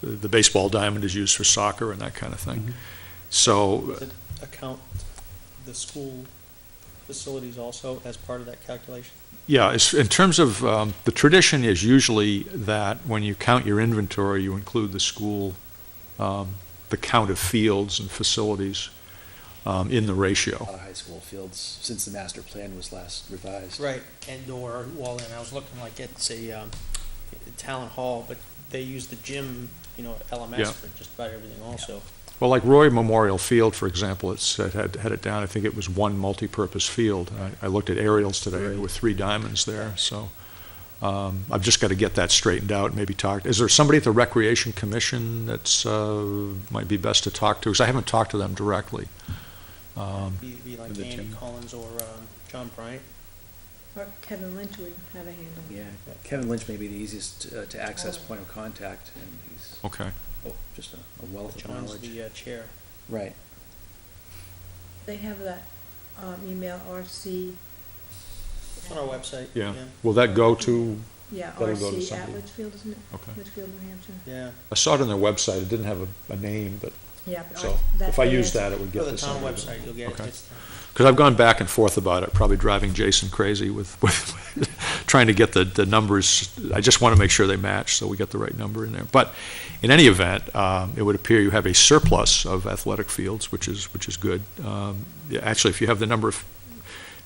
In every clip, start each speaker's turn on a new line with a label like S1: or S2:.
S1: the the baseball diamond is used for soccer and that kind of
S2: Mhm.
S1: thing. So,
S3: account the school facilities also as part of that calculation?
S1: yeah, it's, in terms of, um, the tradition is usually that when you count your inventory, you include the school, um, the count of fields and facilities, um, in the ratio.
S2: lot of high school fields since the master plan was last revised.
S3: Right, and or, well, and I was looking like it's a, um, town hall, but they use the gym, you know,
S1: Yeah.
S3: LMS for just about everything also.
S1: Well, like Roy Memorial Field, for example, it's, it had, had it down, I think it was one multipurpose field. And I, I looked at aerials today, there were three diamonds there, so, um, I've just gotta get that straightened out, and maybe talk, is there somebody at the Recreation Commission that's, uh, might be best to talk to? Because I haven't talked to them directly. Um,
S3: Be, be like
S2: For the
S3: Andy
S2: gym.
S3: Collins or, um, John Bryant.
S4: Or Kevin Lynch would have a handle.
S2: Yeah, Kevin Lynch may be the easiest uh, to access point of contact, and he's
S1: okay,
S2: oh, just a- a wealth of
S3: John's
S2: knowledge.
S3: the uh, chair.
S2: Right.
S4: They have that, um, email RC.
S3: It's on our website.
S1: yeah. Will that go to,
S4: Yeah,
S1: That'll go to
S4: RC at
S1: somebody.
S4: Litchfield, isn't it?
S1: Okay.
S4: Litchfield, New Hampshire.
S3: Yeah,
S1: I saw it on their website, it didn't have a, a name, but,
S4: Yeah. but
S1: so,
S4: that-
S1: if I
S4: that
S1: use
S4: is-
S1: that, it would
S3: go
S1: get
S3: to the
S1: this.
S3: town
S1: under-
S3: website, you'll get it.
S1: Okay.
S3: It's-
S1: Because I've gone back and forth about it, probably driving Jason crazy with, with trying to get the, the numbers. I just want to make sure they match, so we get the right number in there. But in any event, um, it would appear you have a surplus of athletic fields, which is, which is good. Um, yeah, Actually, if you have the number of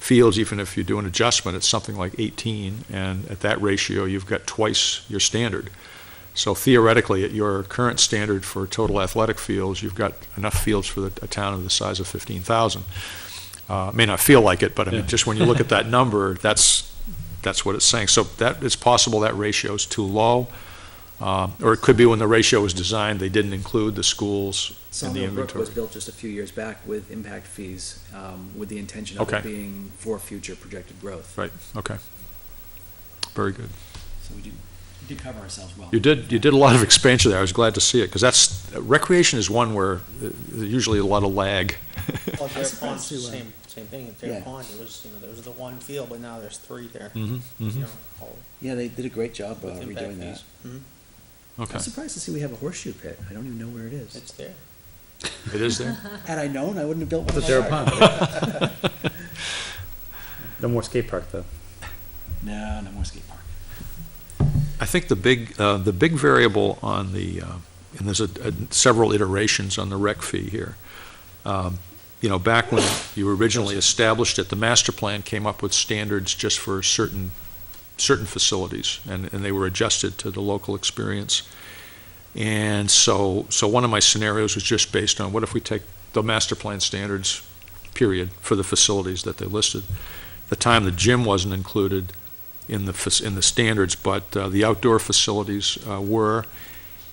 S1: fields, even if you do an adjustment, it's something like 18, and at that ratio, you've got twice your standard. So theoretically, at your current standard for total athletic fields, you've got enough fields for the, a town of the size of 15,000. Uh, it may not feel like it, but I mean, just when you look at that number, that's, that's what it's saying. So that, it's possible that ratio is too low, um, or it could be when the ratio was designed, they didn't include the schools in the
S2: Sawmill Brook
S1: inventory.
S2: was built just a few years back with impact fees, um, with the intention of
S1: Okay.
S2: it being for future projected growth.
S1: Right, okay. Very good.
S2: So we did, we did cover ourselves well.
S1: You did, you did a lot of expansion there, I was glad to see it, because that's, recreation is one where uh, there's usually a lot of lag.
S3: Well, their
S2: surprised
S3: pond's the
S2: you, uh,
S3: same, same thing. At their
S2: yeah.
S3: pond, it was, you know, there was the one field, but now there's three there.
S1: Mhm,
S3: You
S1: mhm.
S3: know, all
S2: Yeah, they did a great job uh,
S3: with impact
S2: redoing that.
S3: fees. Mhm.
S1: Okay,
S2: I'm surprised to see we have a horseshoe pit. I don't even know where it is.
S3: It's there.
S1: it is there?
S2: Had I known, I wouldn't have built one.
S5: But they're
S2: myself.
S5: a No more skate park, though.
S2: No, no more skate park.
S1: I think the big, uh, the big variable on the, uh, and there's a- a- several iterations on the rec fee here. Um, You know, back when you originally established it, the master plan came up with standards just for certain, certain facilities, and, and they were adjusted to the local experience. And so, so one of my scenarios was just based on, what if we take the master plan standards, period, for the facilities that they listed? At The time the gym wasn't included, in the, fac- in the standards, but uh, the outdoor facilities uh, were,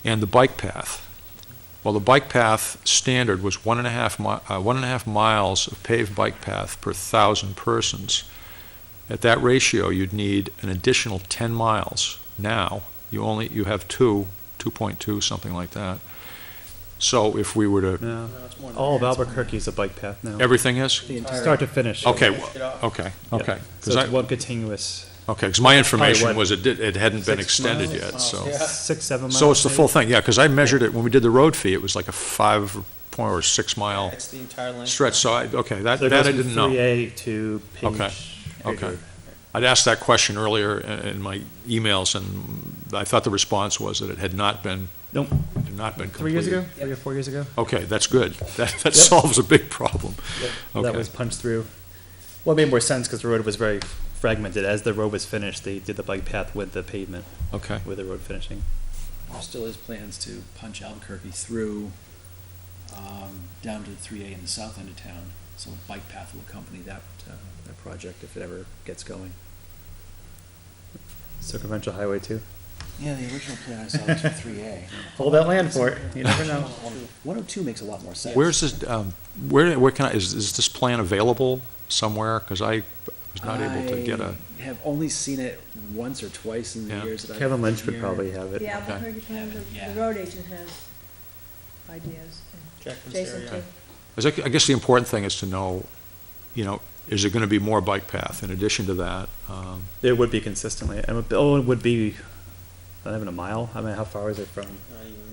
S1: and the bike path. Well, the bike path standard was one and a half mi, uh, one and a half miles of paved bike path per thousand persons. At that ratio, you'd need an additional ten miles. Now, you only, you have two, two point two, something like that. So if we were to,
S5: No.
S3: No, it's more than
S5: All of
S3: that.
S5: Albuquerque is a bike path now.
S1: everything is?
S2: The entire-
S5: Start to finish.
S1: Okay,
S3: Finish it off.
S1: okay,
S5: Yeah.
S1: okay.
S5: So it's
S1: Because
S5: one continuous,
S1: my information
S5: what,
S1: was it did, it hadn't been
S5: six
S1: extended
S5: miles?
S1: yet, so.
S3: Yeah.
S5: six, seven miles.
S1: So it's the
S5: maybe?
S1: full thing, yeah, because I measured it, when we did the road fee, it was like a five point or six mile
S3: It's the entire length.
S1: stretch, so I, okay, that,
S5: So it
S1: that
S5: goes
S1: I
S5: from
S1: didn't know.
S5: 3A to
S1: Okay,
S5: page.
S1: okay. I'd asked that question earlier i- in my emails, and I thought the response was that it had not been,
S5: Nope,
S1: had not been completed.
S5: three years ago, three or four years ago?
S1: Okay, that's good, that, that
S5: Yep.
S1: solves a big problem.
S5: That
S1: Okay.
S5: was punched through. Well, it made more sense because the road was very fragmented. As the road was finished, they did the bike path with the pavement,
S1: Okay,
S5: with the road finishing.
S2: There still is plans to punch Albuquerque through, um, down to three A in the south end of town. So a bike path will accompany that, uh, that project if it ever gets going.
S5: Circumferential highway too.
S2: Yeah, the original plan I saw was for three A.
S5: Hold that land for it, you never know.
S2: One oh two makes a lot more sense.
S1: where's this, um, where, where can I, is, is this plan available somewhere? Because I was not able to get a,
S2: I have only seen it once or twice in the
S1: Yeah.
S2: years that I've.
S5: Kevin Lynch
S2: been
S5: would
S2: here.
S5: probably have it.
S4: The Albuquerque plan, the,
S2: Yeah.
S4: the road agent has ideas,
S3: Check
S4: and
S3: this
S4: Jason
S3: area.
S4: too.
S1: Is that- I guess the important thing is to know, you know, is there going to be more bike path in addition to that? Um,
S5: It would be consistently, and it would- oh, it would be, not even a mile, I mean, how far is it from?
S3: Not even